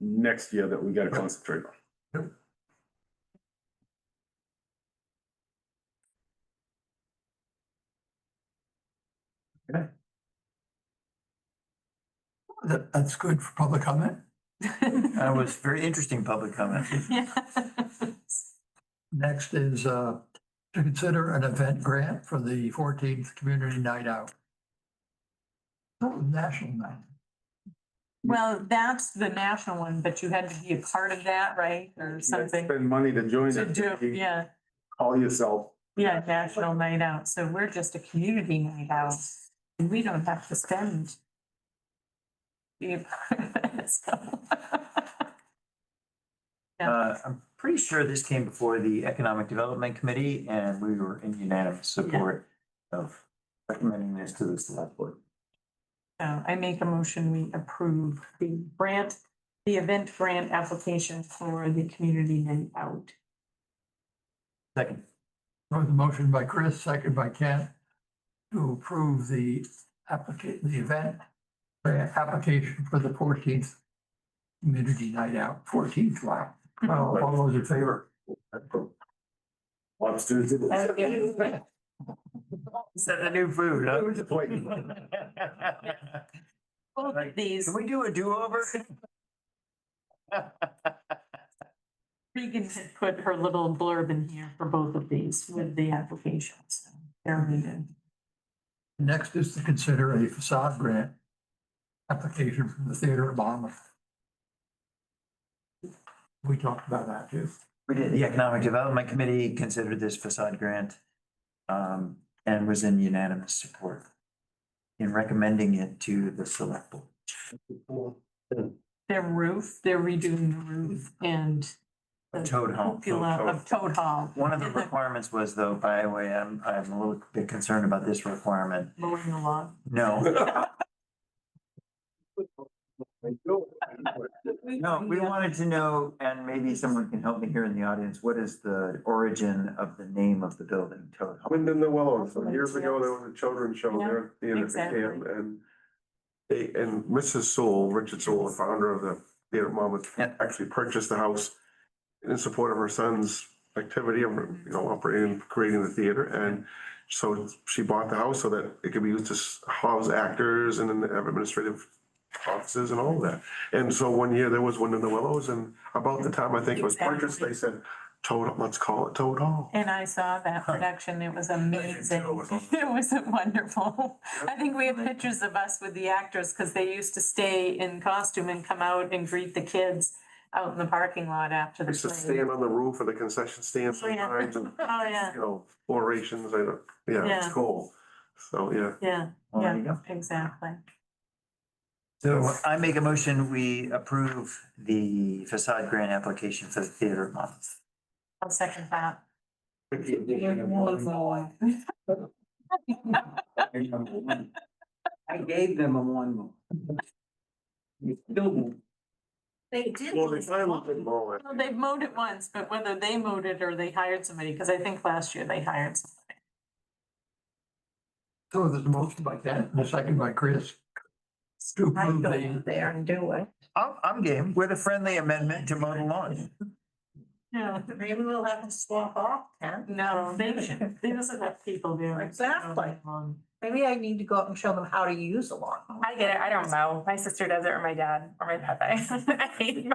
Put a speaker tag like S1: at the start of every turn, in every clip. S1: next year that we gotta concentrate on.
S2: That, that's good for public comment.
S3: That was very interesting public comment.
S2: Next is, uh, to consider an event grant for the fourteenth community night out. Oh, National night.
S4: Well, that's the national one, but you had to be a part of that, right? Or something
S1: Spend money to join
S4: to
S1: it.
S4: do,
S1: You
S4: yeah,
S1: Call yourself.
S4: yeah, national night out. So we're just a community night out. And we don't have to spend. be a part of it, so. Yeah.
S3: Uh, I'm pretty sure this came before the Economic Development Committee and we were in unanimous support of recommending this to the select board.
S4: So I make a motion, we approve the grant, the event grant application for the community night out.
S3: Second,
S2: There was a motion by Chris, second by Kent, to approve the applica- the event grant application for the fourteenth community night out, fourteenth, wow. Well, All those in favor?
S1: Lots to do.
S3: is that the new food? huh?
S4: Both of these
S3: Can we do a do-over?
S4: Regan had put her little blurb in here for both of these with the applications. They're needed.
S2: Next is to consider a facade grant application from the Theater of Monmouth. We talked about that too.
S3: We did, the Economic Development Committee considered this facade grant um, and was in unanimous support in recommending it to the select board.
S4: Their roof, they're redoing the roof and. the
S3: Toad Hall.
S4: Cupola of Toad Hall,
S3: One of the requirements was though, by the way, I'm, I'm a little bit concerned about this requirement.
S4: mowing the lawn.
S3: No, no, we wanted to know, and maybe someone can help me here in the audience, what is the origin of the name of the building, Toad Hall?
S5: Wind in the Willow, some years ago, there was a children's show
S4: Yeah,
S5: there, at the end of the
S4: exactly.
S5: camp, and they, and Mrs. Sewell, Richard Sewell, the founder of the theater at Monmouth,
S3: Yeah.
S5: actually purchased the house in support of her son's activity of, you know, operating, creating the theater, and so she bought the house so that it could be used to s- house actors and then have administrative offices and all of that. And so one year, there was Wind in the Willows, and about the time I think it was purchased, they said, Toad, let's call it Toad Hall.
S4: And I saw that production. It was amazing.
S5: tell it was awesome.
S4: It was wonderful. I think we have pictures of us with the actors because they used to stay in costume and come out and greet the kids out in the parking lot after the
S5: Used to
S4: play.
S5: stand on the roof of the concession stand
S4: Oh, yeah.
S5: sometimes and,
S4: Oh, yeah,
S5: you know, orations, I don't, yeah,
S4: Yeah.
S5: it's cool. So, yeah.
S4: yeah,
S3: Well, Oh, there you go.
S4: exactly.
S3: So I make a motion, we approve the facade grant application for the theater at Monmouth.
S4: I'll second that.
S6: I gave them a one more. You still won't.
S4: They did.
S5: Well, they finally did mow it.
S4: Well, They've mowed it once, but whether they mowed it or they hired somebody, because I think last year they hired somebody.
S2: So there's a motion by Kent and a second by Chris. To approve the,
S6: there and do it.
S3: I'm, I'm game with a friendly amendment to mow the lawn.
S4: No,
S6: Maybe we'll have to swap off, Ken.
S4: no, they should, they doesn't have people there.
S6: Exactly. Maybe I need to go out and show them how to use a lawnmower.
S7: I get it. I don't know. My sister does it or my dad or my papa. I hate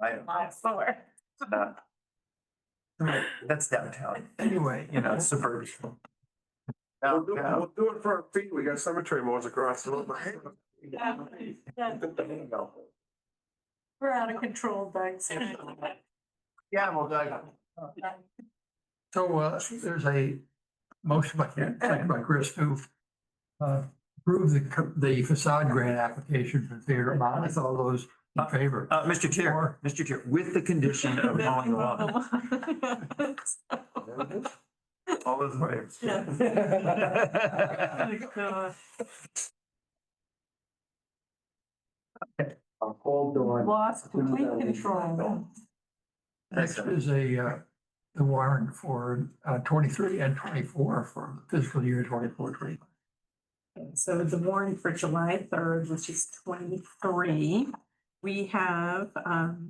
S3: I-
S7: lots slower.
S3: not- That's downtown,
S2: anyway,
S3: you know, suburban.
S5: We'll do, we'll do it for our feet. We got cemetery mows across. the road.
S4: Yeah, We're out of control, Doug.
S3: Yeah, well, Doug.
S2: so, uh, there's a motion by Kent, second by Chris to uh, approve the, co- the facade grant application for theater at Monmouth. All those in favor?
S3: Uh, Mr. Chair, Mr. Chair, with the condition of mowing the lawn. All those waves.
S4: Oh, God. Lost complete control.
S2: Next is a, uh, the warrant for uh, twenty-three and twenty-four for fiscal year twenty-four, twenty.
S4: So the warrant for July third, which is twenty-three, we have, um,